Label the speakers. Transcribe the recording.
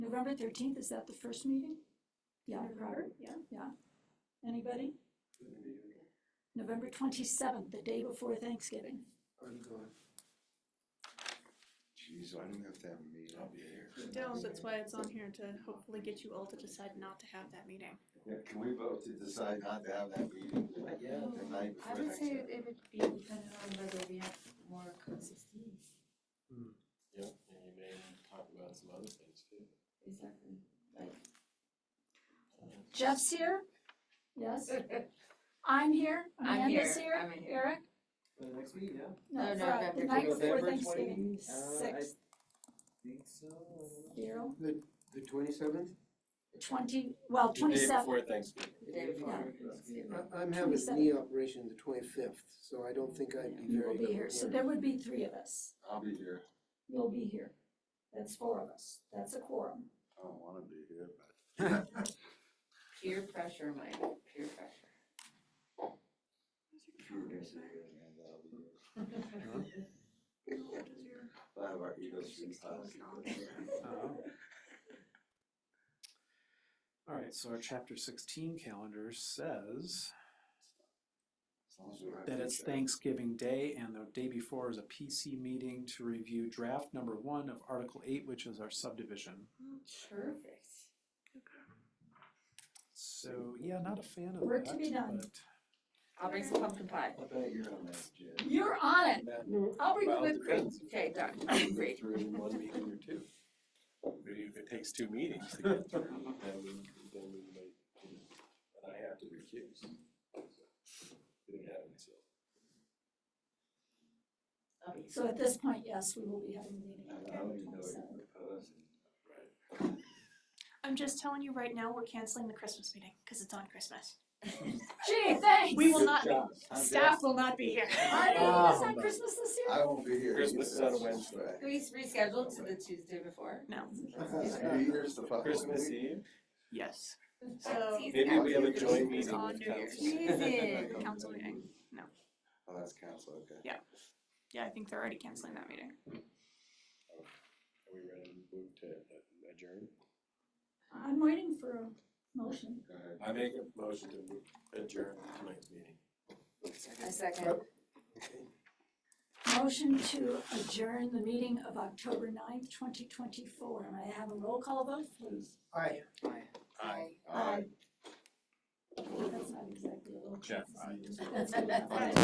Speaker 1: November thirteenth, is that the first meeting? Yeah, Robert,
Speaker 2: Yeah.
Speaker 1: anybody? November twenty-seventh, the day before Thanksgiving.
Speaker 3: I'm gone.
Speaker 4: Jeez, I don't have to have a meeting, I'll be here.
Speaker 2: Don't, that's why it's on here to hopefully get you all to decide not to have that meeting.
Speaker 4: Yeah, can we vote to decide not to have that meeting the
Speaker 3: Yeah.
Speaker 2: Oh,
Speaker 4: the night before
Speaker 5: I would say
Speaker 4: Thanksgiving?
Speaker 5: it would be dependent on whether we have more code sixteen,
Speaker 6: Yep, and you may talk about some other things too.
Speaker 5: exactly,
Speaker 1: Jeff's here? Yes.
Speaker 5: like.
Speaker 1: I'm here,
Speaker 5: I'm here,
Speaker 1: Amanda's here,
Speaker 5: I'm here.
Speaker 1: Eric?
Speaker 3: For the next week, yeah?
Speaker 5: No,
Speaker 1: Fri-
Speaker 5: November
Speaker 1: The night before
Speaker 3: November
Speaker 1: Thanksgiving,
Speaker 3: 20, uh, I-
Speaker 1: sixth,
Speaker 3: Think so. I
Speaker 1: zero,
Speaker 3: The twenty-seventh?
Speaker 1: twenty, well, twenty-seven,
Speaker 6: The day before Thanksgiving.
Speaker 5: The day before Thanksgiving.
Speaker 3: I'm having a
Speaker 1: 27th.
Speaker 3: knee operation the twenty-fifth, so I don't think I'd be
Speaker 1: you will
Speaker 3: very.
Speaker 1: be here, so there would be three of us.
Speaker 4: I'll be here,
Speaker 1: You'll be here. That's four of us. That's a quorum.
Speaker 4: I don't wanna be here, but.
Speaker 5: Peer pressure, Mike, peer pressure.
Speaker 4: Drew is here and I'll be here. I have our ego stream policy.
Speaker 3: Uh-huh.
Speaker 7: All right, so our chapter sixteen calendar says
Speaker 4: As long as we're not
Speaker 7: that it's
Speaker 4: gonna-
Speaker 7: Thanksgiving Day and the day before is a PC meeting to review draft number one of Article eight, which is our subdivision.
Speaker 5: Perfect.
Speaker 7: So, yeah, not a fan of
Speaker 1: Work to be
Speaker 7: that,
Speaker 1: done.
Speaker 7: but
Speaker 5: I'll bring some pumpkin pie.
Speaker 4: I bet you're on that, Jen.
Speaker 1: You're on it.
Speaker 5: I'll bring the
Speaker 6: Well, it
Speaker 5: whipped cream.
Speaker 6: depends.
Speaker 5: Okay, done,
Speaker 6: You
Speaker 5: great.
Speaker 6: get through in one meeting or two. Maybe if it takes two meetings to get through, then we, then we might, you know, and I have to recuse. Didn't have it, so.
Speaker 5: I'll be-
Speaker 1: So at this point, yes, we will be having a meeting.
Speaker 4: I don't even know what you're proposing.
Speaker 2: I'm just telling you right now, we're canceling the Christmas meeting because it's on Christmas.
Speaker 1: Gee, thanks.
Speaker 2: We will
Speaker 4: Good
Speaker 2: not,
Speaker 4: job.
Speaker 2: staff will not be here.
Speaker 1: I didn't know it was on Christmas this year.
Speaker 4: I won't be here.
Speaker 6: Christmas is on a Wednesday.
Speaker 5: Can we reschedule to the Tuesday before?
Speaker 2: No.
Speaker 4: New Year's the following
Speaker 6: Christmas
Speaker 4: week.
Speaker 6: Eve,
Speaker 2: Yes. So-
Speaker 6: maybe we have a
Speaker 2: It's
Speaker 6: joint meeting
Speaker 2: on
Speaker 6: with
Speaker 2: New
Speaker 6: council.
Speaker 5: Amazing.
Speaker 2: Council meeting. No.
Speaker 4: Oh, that's council, okay.
Speaker 2: Yeah, I think they're already canceling that meeting.
Speaker 6: Are we ready to move to adjourn?
Speaker 1: I'm waiting for a motion.
Speaker 4: Go ahead.
Speaker 6: I make a motion to move- adjourn tonight's meeting.
Speaker 5: I second.
Speaker 1: Motion to adjourn the meeting of October 9th, twenty twenty-four. May I have a roll call vote, please?
Speaker 3: Aye.
Speaker 5: Aye.
Speaker 4: Aye.
Speaker 1: That's not exactly a roll call.
Speaker 6: Jeff, aye.
Speaker 1: That's good enough.
Speaker 5: Aye.